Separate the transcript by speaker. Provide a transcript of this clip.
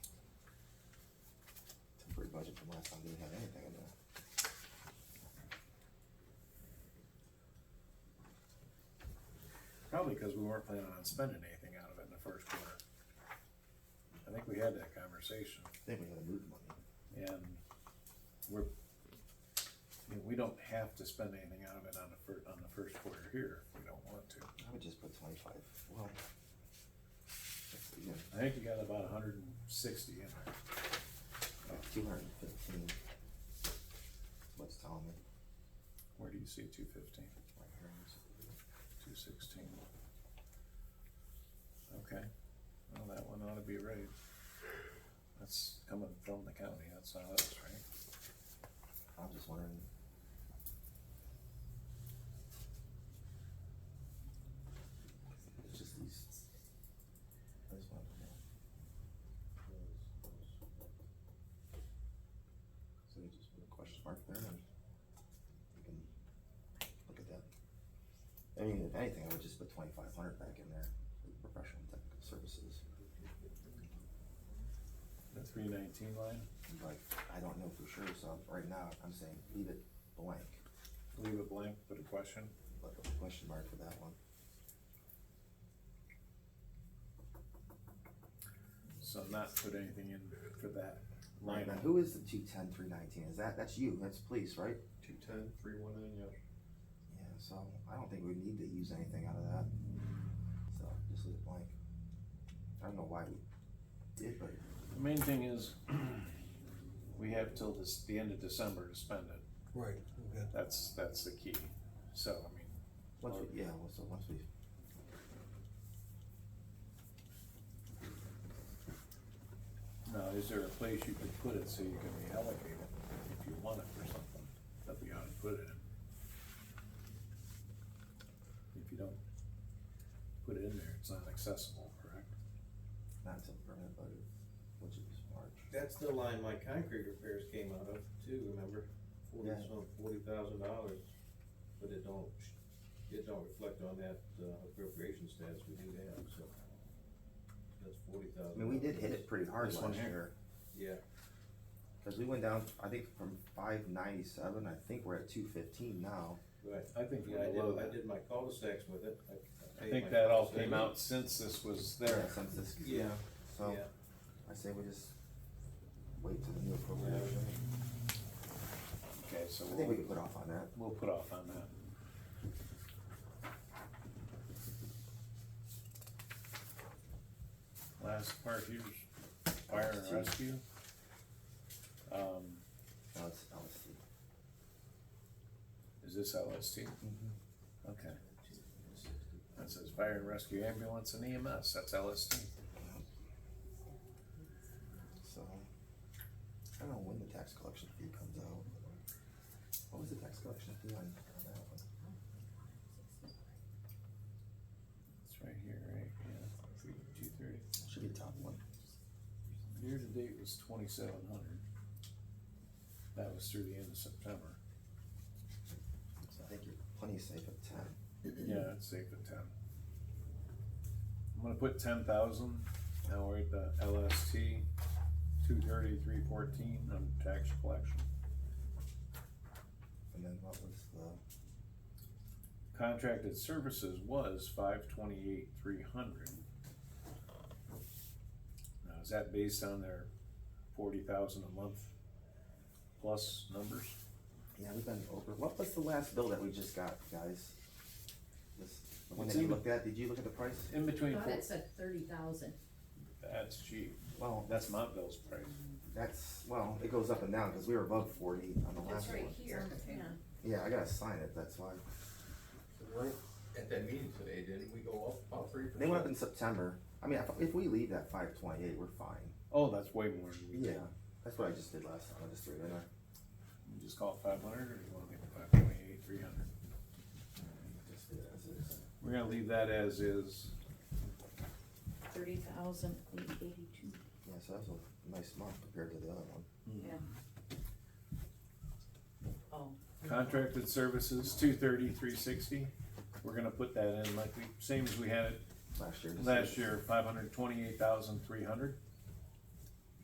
Speaker 1: last time didn't have anything in there.
Speaker 2: Probably because we weren't planning on spending anything out of it in the first quarter. I think we had that conversation,
Speaker 1: I think we had a root money.
Speaker 2: and we're, I mean, we don't have to spend anything out of it on the fir- on the first quarter here, if we don't want to.
Speaker 1: I would just put twenty-five, well. that's even,
Speaker 2: I think you got about hundred and sixty in there.
Speaker 1: Like two hundred and fifteen. What's telling me?
Speaker 2: Where do you see two fifteen,
Speaker 1: Right here on this.
Speaker 2: two sixteen? Okay, well, that one ought to be right. That's coming from the county, that's how that's right.
Speaker 1: I'm just wondering. It's just these. I just wanna know. So you just put a question mark there and you can look at that. I mean, if anything, I would just put twenty-five hundred back in there for professional and technical services.
Speaker 2: The three nineteen line,
Speaker 1: And Like, I don't know for sure, so right now I'm saying leave it blank,
Speaker 2: leave it blank, put a question.
Speaker 1: but a question mark for that one.
Speaker 2: So not put anything in for that line.
Speaker 1: Now, who is the two ten, three nineteen? Is that, that's you, that's police, right?
Speaker 3: Two ten, three one nine, yeah.
Speaker 1: Yeah, so I don't think we need to use anything out of that. So just leave it blank. I don't know why we did, but
Speaker 2: The main thing is, we have till this, the end of December to spend it.
Speaker 4: Right, okay.
Speaker 2: That's, that's the key. So, I mean,
Speaker 1: once we, yeah, well, so once we.
Speaker 2: now, is there a place you could put it so you can reallocate it if you want it for something that we ought to put it in? If you don't put it in there, it's not accessible, correct?
Speaker 1: Not until permanent budget, which is March.
Speaker 3: That's the line my concrete repairs came out of too, remember? Forty,
Speaker 1: Yeah.
Speaker 3: some, forty thousand dollars, but it don't, it don't reflect on that uh, appropriation stats we do have, so. That's forty thousand.
Speaker 1: I mean, we did hit it pretty hard
Speaker 2: This one
Speaker 1: last
Speaker 2: here.
Speaker 1: year,
Speaker 3: Yeah,
Speaker 1: cause we went down, I think from five ninety-seven, I think we're at two fifteen now.
Speaker 3: right.
Speaker 2: I think
Speaker 3: Yeah, I
Speaker 2: we're below
Speaker 3: did, I
Speaker 2: that.
Speaker 3: did my cul-de-sacs with it.
Speaker 2: I
Speaker 3: paid my
Speaker 2: think that all
Speaker 3: cul-de-sacs.
Speaker 2: came out since this was
Speaker 1: Yeah,
Speaker 2: there.
Speaker 1: Since this,
Speaker 3: Yeah,
Speaker 1: so
Speaker 3: yeah.
Speaker 1: I say we just wait till the new appropriation.
Speaker 2: Okay, so
Speaker 1: I think we
Speaker 2: we'll,
Speaker 1: could put off on that.
Speaker 2: we'll put off on that. Last part here's fire and rescue. Um,
Speaker 1: Now it's LSD.
Speaker 2: is this LST?
Speaker 1: Mm-hmm.
Speaker 2: Okay, that says fire and rescue ambulance and EMS, that's LST.
Speaker 1: So, I don't know when the tax collection fee comes out. What was the tax collection fee on, on that one?
Speaker 2: It's right here, right, yeah, two thirty.
Speaker 1: Should be the top one.
Speaker 2: Year to date was twenty-seven hundred. That was through the end of September.
Speaker 1: So I think you're plenty safe at ten.
Speaker 2: Yeah, I'd save the ten. I'm gonna put ten thousand, now we're at the LST, two thirty, three fourteen on tax collection.
Speaker 1: And then what was the,
Speaker 2: Contracted services was five twenty-eight, three hundred. Now, is that based on their forty thousand a month plus numbers?
Speaker 1: yeah, we've been over, what was the last bill that we just got, guys? This, the one
Speaker 2: It's
Speaker 1: that you
Speaker 2: in the-
Speaker 1: looked at, did you look at the price?
Speaker 2: In between,
Speaker 5: Thought
Speaker 2: four-
Speaker 5: it said thirty thousand.
Speaker 2: that's cheap,
Speaker 1: Well,
Speaker 2: that's Mont Bill's price.
Speaker 1: that's, well, it goes up and down, cause we were above forty on the last one.
Speaker 5: here, yeah.
Speaker 1: Yeah, I gotta sign it, that's why.
Speaker 6: Right, at that meeting today, didn't we go up about three percent?
Speaker 1: They went up in September. I mean, if- if we leave that five twenty-eight, we're fine.
Speaker 2: Oh, that's way more than we did.
Speaker 1: Yeah, that's what I just did last time, I just threw it in there.
Speaker 2: You Just call it five hundred, or you wanna make it five twenty-eight, three hundred?
Speaker 1: Just do it as is.
Speaker 2: We're gonna leave that as is.
Speaker 5: Thirty thousand eight eighty-two.
Speaker 1: Yeah, so that's a nice month compared to the other one.
Speaker 5: Yeah. Oh.
Speaker 2: Contracted services, two thirty, three sixty. We're gonna put that in like we, same as we had it
Speaker 1: Last year. just-
Speaker 2: last year, five hundred twenty-eight thousand, three hundred.